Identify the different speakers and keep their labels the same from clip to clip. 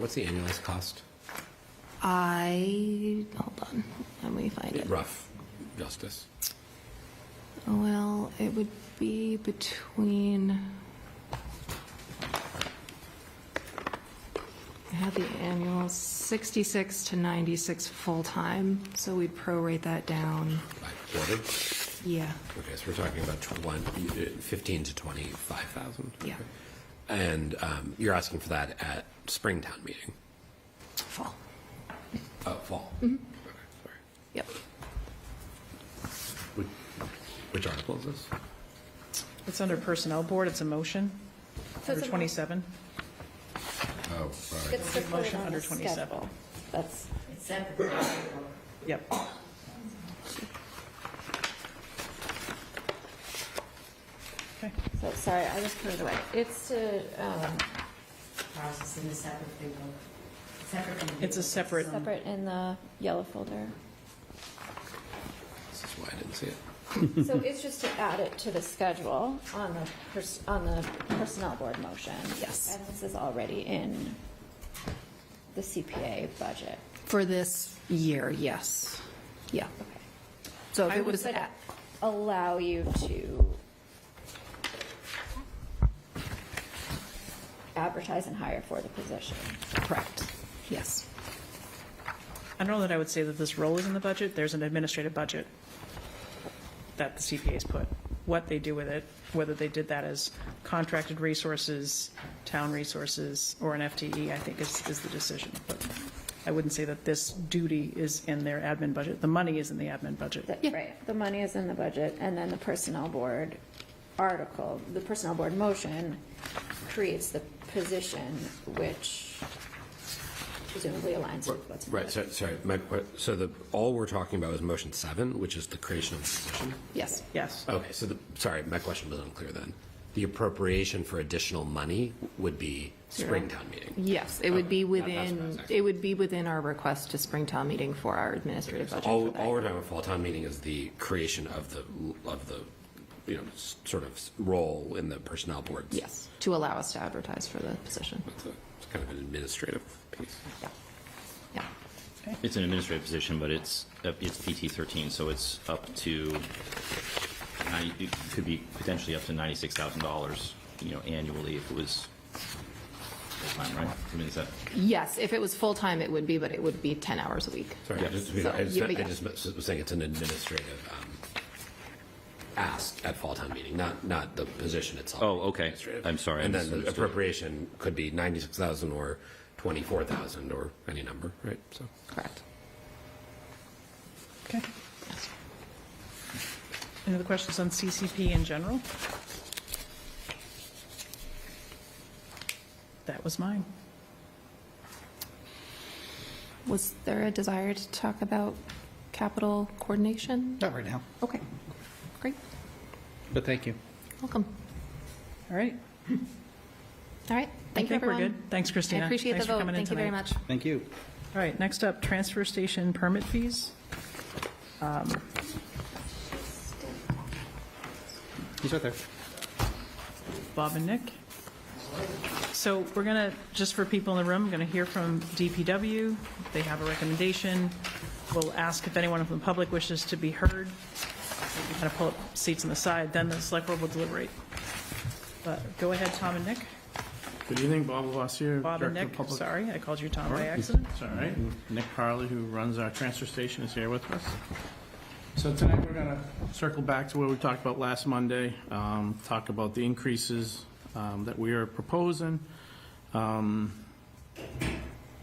Speaker 1: What's the annualized cost?
Speaker 2: I, hold on, let me find it.
Speaker 1: Rough justice.
Speaker 2: Well, it would be between. I have the annual 66 to 96 full-time, so we'd prorate that down.
Speaker 1: By quarter?
Speaker 2: Yeah,
Speaker 1: Okay, so we're talking about tw- one- uh, 15 to 25,000?
Speaker 2: Yeah.
Speaker 1: Okay. And um, you're asking for that at Springtown meeting,
Speaker 2: full.
Speaker 1: uh, fall? Okay, sorry.
Speaker 2: Yep.
Speaker 1: Which- Which article is this?
Speaker 3: It's under Personnel Board, it's a motion, under 27.
Speaker 1: Oh, right.
Speaker 4: It's supported
Speaker 3: Motion
Speaker 4: on
Speaker 3: under
Speaker 4: the
Speaker 3: 27.
Speaker 4: schedule. That's,
Speaker 3: Yep. Okay.
Speaker 4: so, sorry, I just put it away. It's to, um. Process in a separate thing, separate.
Speaker 3: It's a separate,
Speaker 4: Separate in the yellow folder.
Speaker 1: This is why I didn't see it.
Speaker 4: So it's just to add it to the schedule on the, pers- on the personnel board motion.
Speaker 2: Yes.
Speaker 4: And this is already in the CPA budget.
Speaker 2: For this year, yes. Yeah. So if
Speaker 4: I
Speaker 2: it
Speaker 4: would
Speaker 2: was, at-
Speaker 4: allow you to advertise and hire for the position.
Speaker 2: correct, yes.
Speaker 3: I don't know that I would say that this role is in the budget, there's an administrative budget that the CPA's put. What they do with it, whether they did that as contracted resources, town resources, or an FTE, I think is, is the decision. But I wouldn't say that this duty is in their admin budget, the money is in the admin budget.
Speaker 4: The- Right, the money is in the budget, and then the personnel board article, the personnel board motion creates the position, which presumably aligns with what's. in the
Speaker 1: Right, so, sorry, my, que- so the, all we're talking about is motion seven, which is the creation of the position?
Speaker 2: Yes.
Speaker 3: Yes,
Speaker 1: Okay, so the, sorry, my question was unclear then. The appropriation for additional money would be Springtown meeting?
Speaker 2: Yes, it would be
Speaker 1: Okay, that- that's what I was
Speaker 2: within,
Speaker 1: asking.
Speaker 2: it would be within our request to Springtown meeting for our administrative budget.
Speaker 1: All,
Speaker 2: for that
Speaker 1: all
Speaker 2: year.
Speaker 1: we're talking about fall town meeting is the creation of the, of the, you know, s- sort of s- role in the personnel boards.
Speaker 2: Yes, to allow us to advertise for the position.
Speaker 1: It's a- it's kind of an administrative piece.
Speaker 2: Yeah. Yeah.
Speaker 5: It's an administrative position, but it's, uh, it's PT 13, so it's up to, 90 it could be potentially up to $96,000, you know, annually if it was full-time, right? I mean, is that,
Speaker 2: Yes, if it was full-time, it would be, but it would be 10 hours a week.
Speaker 1: Sorry, I just,
Speaker 2: So,
Speaker 1: I just,
Speaker 2: yeah,
Speaker 1: I
Speaker 2: but yeah.
Speaker 1: just was saying it's an administrative, um, ask at fall town meeting, not, not the position itself.
Speaker 5: Oh, okay.
Speaker 1: Administrative.
Speaker 5: I'm sorry, I
Speaker 1: And then the
Speaker 5: misunderstood.
Speaker 1: appropriation could be 96,000 or 24,000 or any number, right? So,
Speaker 2: Correct.
Speaker 3: okay. Any other questions on CCP in general? That was mine.
Speaker 2: Was there a desire to talk about capital coordination?
Speaker 6: Not right now,
Speaker 2: Okay, great,
Speaker 6: but thank you.
Speaker 2: welcome.
Speaker 3: All right.
Speaker 2: All right, thank you,
Speaker 3: think we're
Speaker 2: everyone.
Speaker 3: good. Thanks, Christina.
Speaker 2: I appreciate the
Speaker 3: Thanks for
Speaker 2: vote,
Speaker 3: coming in
Speaker 2: thank you very
Speaker 3: tonight.
Speaker 2: much.
Speaker 6: Thank you.
Speaker 3: All right, next up, transfer station permit fees.
Speaker 6: He's right there.
Speaker 3: Bob and Nick. So we're going to, just for people in the room, going to hear from DPW. They have a recommendation. We'll ask if anyone from the public wishes to be heard. Kind of pull up seats on the side, then the select board will deliberate. But go ahead, Tom and Nick.
Speaker 7: Good evening, Bob Lavasier.
Speaker 3: Bob and
Speaker 7: Director of
Speaker 3: Nick,
Speaker 7: Public-
Speaker 3: sorry, I called you Tom by accident.
Speaker 7: It's all right. Nick Parley, who runs our transfer station, is here with us. So tonight, we're going to circle back to what we talked about last Monday, um, talk about the increases um, that we are proposing. Um,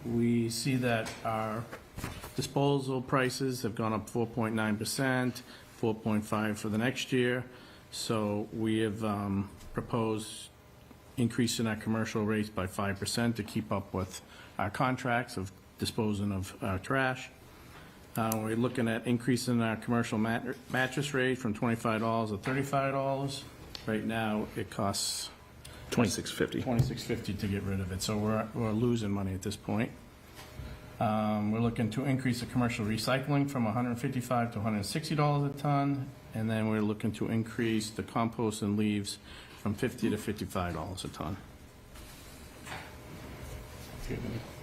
Speaker 7: We see that our disposal prices have gone up 4.9%, 4.5 for the next year. So we have um, proposed increasing our commercial rates by 5% to keep up with our contracts of disposing of uh, trash. Uh, We're looking at increasing our commercial mat- mattress rate from $25 to $35. Right now, it costs
Speaker 8: 2650.
Speaker 7: $26.50 to get rid of it, so we're we're losing money at this point. Um, We're looking to increase the commercial recycling from $155 to $160 a ton, and then we're looking to increase the compost and leaves from $50 to $55 a ton. Do you have any